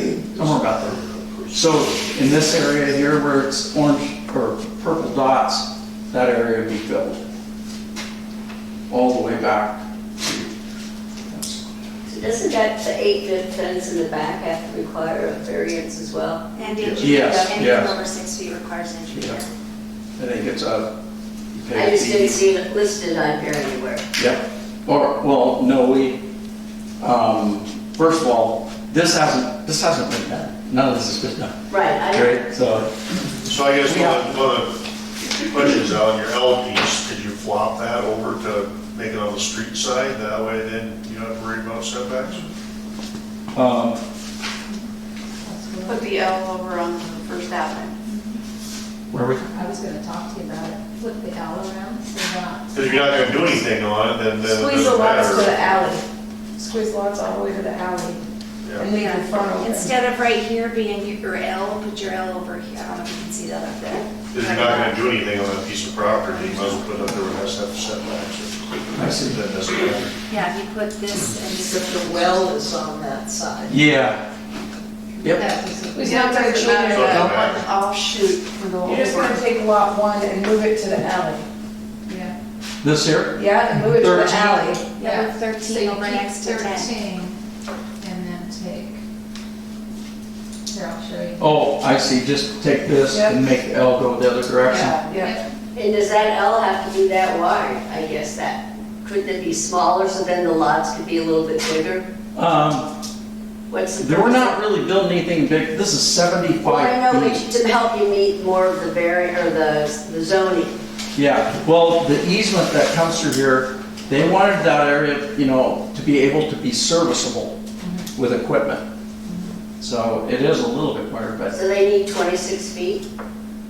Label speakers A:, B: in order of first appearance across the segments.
A: Don't worry about that. So in this area here where it's orange or purple dots, that area would be filled. All the way back.
B: Doesn't that, the eight to tens in the back have to require a variance as well?
C: And the
A: Yes, yes.
C: anything over six feet requires engineering.
A: Yeah. I think it's a.
B: I just didn't see it listed on here anywhere.
A: Yep, or, well, no, we, um, first of all, this hasn't, this hasn't been done. None of this has been done,
B: Right, I don't,
A: right? So,
D: So I guess
A: Yeah.
D: one of- one of the questions on your L piece, could you flop that over to make it on the street side? That way then you don't have to worry about setbacks?
A: um,
E: Put the L over on First Avenue.
A: where are we?
F: I was gonna talk to you about it, flip the alley around, so not,
D: Because if you're not gonna do anything on it, then then it
F: squeeze the
D: doesn't
F: lots to the
D: matter.
F: alley, squeeze lots all the way to the alley,
D: Yeah.
F: and leave the front open.
C: Instead of right here being your L, put your L over here, I don't know if you can see that up there.
D: If you're not gonna do anything on that piece of property, you might as well put it up there where it has to have setbacks.
A: I see.
D: That doesn't matter.
C: Yeah, if you put this and this.
G: Except the well is on that side.
A: Yeah. Yep,
E: It's not gonna change that one offshoot for the whole.
F: You're just gonna take lot one and move it to the alley,
E: Yeah.
A: this here,
F: yeah, and move it to the
A: Thirteen.
F: alley.
C: Number 13 over next to 10.
F: Thirteen, and then take, here, I'll show you.
A: oh, I see, just take this and make the L go the other direction.
F: Yeah, yeah,
B: and does that L have to be that wide? I guess that, couldn't it be smaller so then the lots could be a little bit bigger?
A: Um,
B: What's the?
A: they were
B: purpose
A: not
B: of-
A: really building anything big, this is
B: Well, I know,
A: seventy-five feet.
B: but to help you meet more of the vari, or the the zoning.
A: Yeah, well, the easement that comes through here, they wanted that area, you know, to be able to be serviceable with equipment. So it is a little bit wider, but,
B: So they need 26 feet?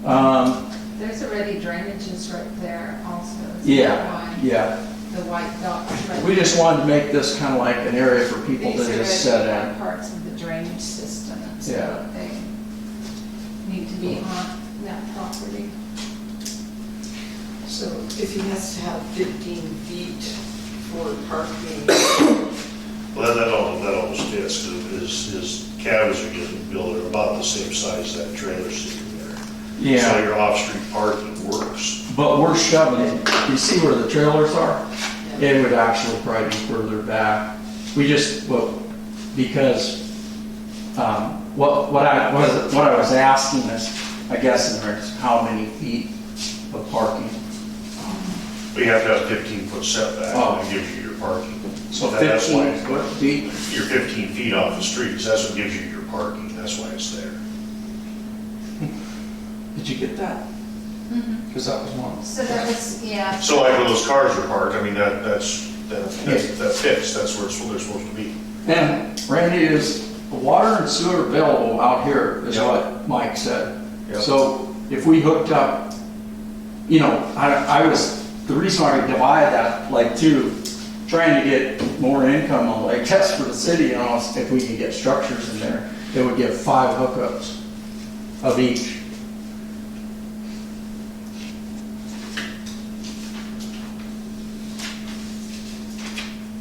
A: um,
F: there's already drainages right there also. It's
A: yeah,
F: that
A: yeah.
F: one, The white dot right
A: We just wanted to make this kind of like an area for people to just
F: These are
A: set
F: the
A: in.
F: parts of the drainage system, and
A: Yeah.
F: so they need to be on that property.
G: So if he has to have 15 feet for parking,
D: Well, that all, that all stands, because his, his cabins are getting built, are about the same size as that trailer sitting there. So
A: Yeah,
D: your off-street parking works.
A: but we're shoving it. You see where the trailers are?
G: yeah,
A: It would actually probably be further back. We just, well, because, um, what, what I, was what I was asking is, I guess, in there is how many feet of parking?
D: But you have to have fifteen foot setback,
A: Oh.
D: and gives you your parking.
A: So
D: That- that's why-
A: fifteen foot feet?
D: You're fifteen feet off the streets, that's what gives you your parking, that's why it's there.
A: Did you get that? Because that was one.
F: So that was, yeah.
D: So like where those cars are parked, I mean, that, that's, that, that's- that fits, that's where it's, where they're supposed to be.
A: And Randy, is the water and sewer available out here, is
D: Yeah.
A: what Mike said.
D: Yeah.
A: So if we hooked up, you know, I, I was, the reason why I divided that, like two, trying to get more income, on like, test for the city, and all, if we could get structures in there, it would give five hookups of each.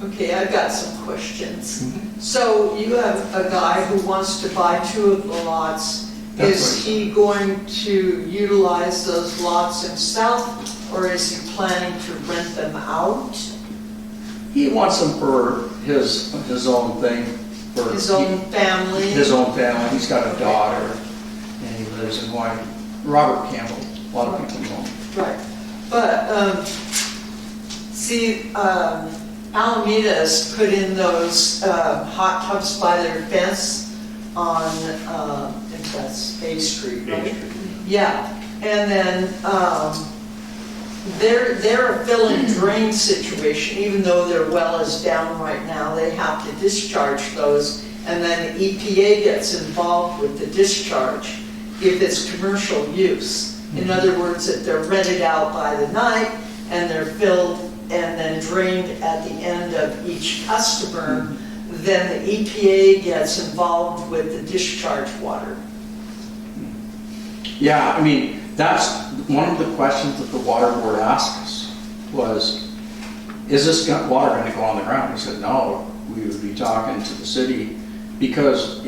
G: Okay, I've got some questions.
A: Mm-hmm.
G: So you have a guy who wants to buy two of the lots.
A: That's
G: Is
A: right.
G: he going to utilize those lots himself, or is he planning to rent them out?
A: He wants them for his, his own thing, for.
G: His own family?
A: his own family, he's got a daughter, and he lives in Hawaii. Robert Campbell, a lot of people know him.
G: Right, but, um, see, um, Alameda's put in those, uh, hot tubs by their fence on, uh, I think that's A Street, right? Yeah, and then, um, they're, they're a fill and drain situation, even though their well is down right now, they have to discharge those. And then the EPA gets involved with the discharge if it's commercial use. In other words, if they're rented out by the night and they're filled and then drained at the end of each customer, then the EPA gets involved with the discharge water.
A: Yeah, I mean, that's one of the questions that the water board asked us, was, is this go- water gonna go on the ground? We said, no, we would be talking to the city, because